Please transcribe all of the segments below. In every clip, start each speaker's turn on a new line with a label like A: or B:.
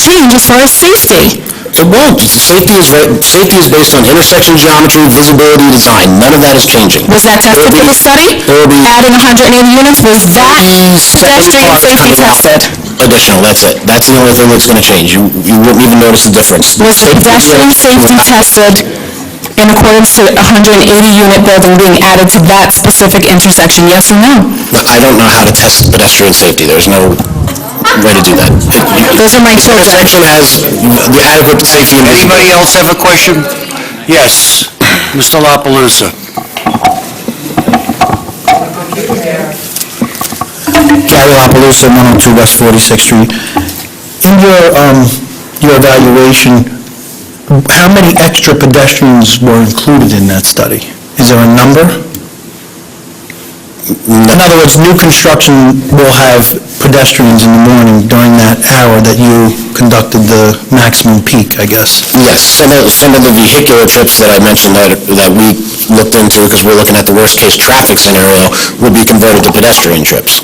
A: change as far as safety.
B: It won't. Safety is, right- safety is based on intersection geometry, visibility, design. None of that is changing.
A: Was that tested in the study?
B: There'll be- Mm,
A: Adding 180 units, was that
B: These
A: pedestrian
B: cars
A: safety
B: coming out.
A: tested?
B: Additional, that's it. That's the only thing that's going to change. You, you wouldn't even notice the difference.
A: Was the
B: Safety
A: pedestrian
B: is-
A: safety tested in accordance to 180-unit building being added to that specific intersection, yes or no?
B: No, I don't know how to test pedestrian safety. There's no way to do that. It-
A: Those are my
B: The
A: children.
B: intersection has the adequate safety and
C: Anybody
B: visibility.
C: else have a question? Yes, Mr. La Palusa.
D: Gary LaPalooza, 102 West 46th Street. In your, um, your evaluation, how many extra pedestrians were included in that study? Is there a number? In other words, new construction will have pedestrians in the morning during that hour that you conducted the maximum peak, I guess.
B: Yes, some of, some of the vehicular trips that I mentioned that, that we looked into, because we're looking at the worst-case traffic scenario, would be converted to pedestrian trips.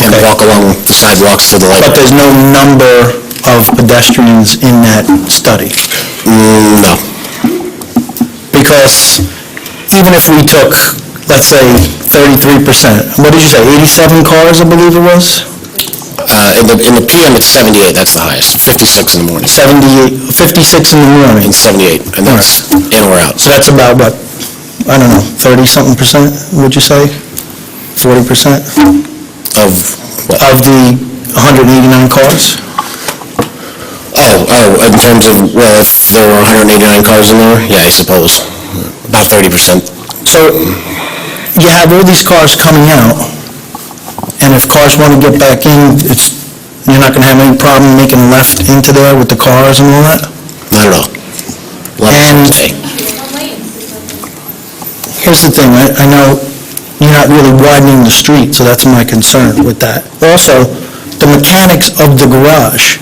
B: And
D: Okay.
B: walk along the sidewalks to the light.
D: But there's no number of pedestrians in that study?
B: Mm, No.
D: Because even if we took, let's say, 33%, what did you say, 87 cars, I believe it was?
B: Uh, In the, in the PM, it's 78, that's the highest, 56 in the morning,
D: 78, 56 in the morning.
B: and 78, and that's in or out.
D: So that's about, what, I don't know, 30-something percent, would you say? 40 percent
B: Of, what?
D: of the 189 cars?
B: oh, oh, in terms of, well, if there were 189 cars in there, yeah, I suppose, about 30%.
D: So you have all these cars coming out, and if cars want to get back in, it's, you're not going to have any problem making a left into there with the cars and all that?
B: Not at all. Let me
D: And-
B: say.
D: Here's the thing, I, I know you're not really widening the street, so that's my concern with that. Also, the mechanics of the garage,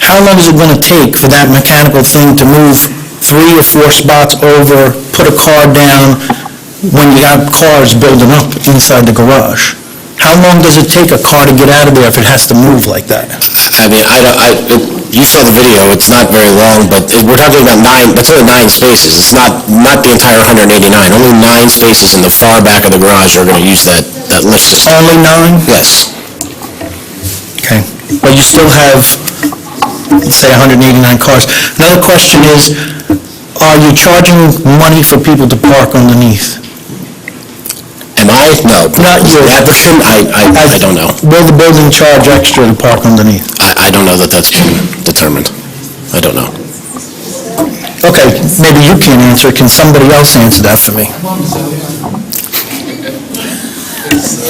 D: how long is it gonna take for that mechanical thing to move three or four spots over, put a car down, when you got cars building up inside the garage? How long does it take a car to get out of there if it has to move like that?
B: I mean, I don't, I, it- you saw the video, it's not very long, but it- we're talking about nine, that's only nine spaces. It's not, not the entire 189. Only nine spaces in the far back of the garage are going to use that, that lift system.
D: Only nine?
B: Yes.
D: Okay. But you still have, let's say, 189 cars. Another question is, are you charging money for people to park underneath?
B: Am I? No.
D: Not you.
B: The applicant, I, I, I don't know.
D: Will the building charge extra to park underneath?
B: I, I don't know that that's been determined. I don't know.
D: Okay, maybe you can't answer, it. can somebody else answer that for me?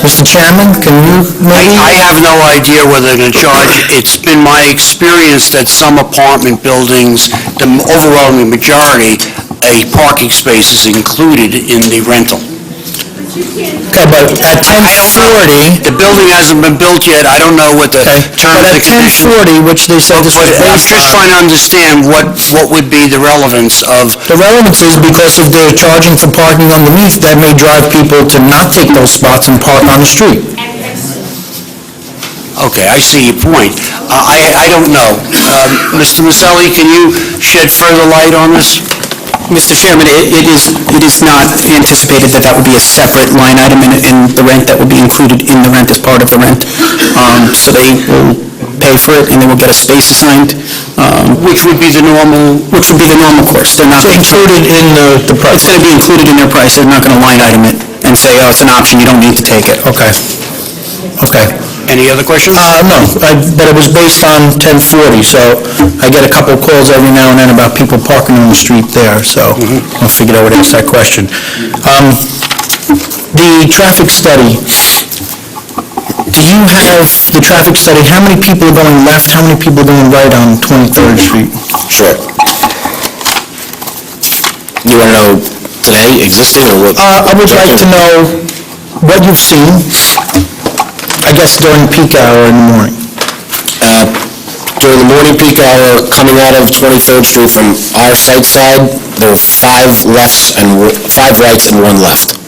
D: Mr. Chairman, can you
C: I,
D: maybe?
C: I have no idea whether they're gonna charge. It's been my experience that some apartment buildings, the overwhelming majority, a parking space is included in the rental.
D: Okay, but at
C: I don't know.
D: 1040,
C: The building hasn't been built yet, I don't know what the
D: okay,
C: terms
D: but
C: and
D: at
C: conditions...
D: 1040, which they said this
C: But
D: was
C: I'm
D: based
C: just
D: on-
C: trying to understand what, what would be the relevance of
D: The relevance is because if they're charging for parking underneath, that may drive people to not take those spots and park on the street.
C: Okay, I see your point. Uh, I, I don't know. Um, Mr. Maselli, can you shed further light on this?
E: Mr. Chairman, it it is, it is not anticipated that that would be a separate line item in, in the rent that would be included in the rent as part of the rent. Um, So they will pay for it, and they will get a space assigned, um,
C: Which would be the normal,
E: which would be the normal course. They're not, it's
D: Included in the, the price.
E: going to be included in their price, they're not going to line item it and say, oh, it's an option, you don't need to take it.
D: Okay. Okay.
C: any other questions?
D: Uh, no, I, but it was based on 1040, so I get a couple calls every now and then about people parking on the street there, so I figured I would ask that question. Um, the traffic study, do you have the traffic study, how many people are going left, how many people are going right on 23rd Street?
B: Sure. You want to know today, existing, or what?
D: Uh, I would like to know what you've seen, I guess during peak hour in the morning.
B: During the morning peak hour, coming out of 23rd Street from our site side, there were five lefts and, one- five rights and one left.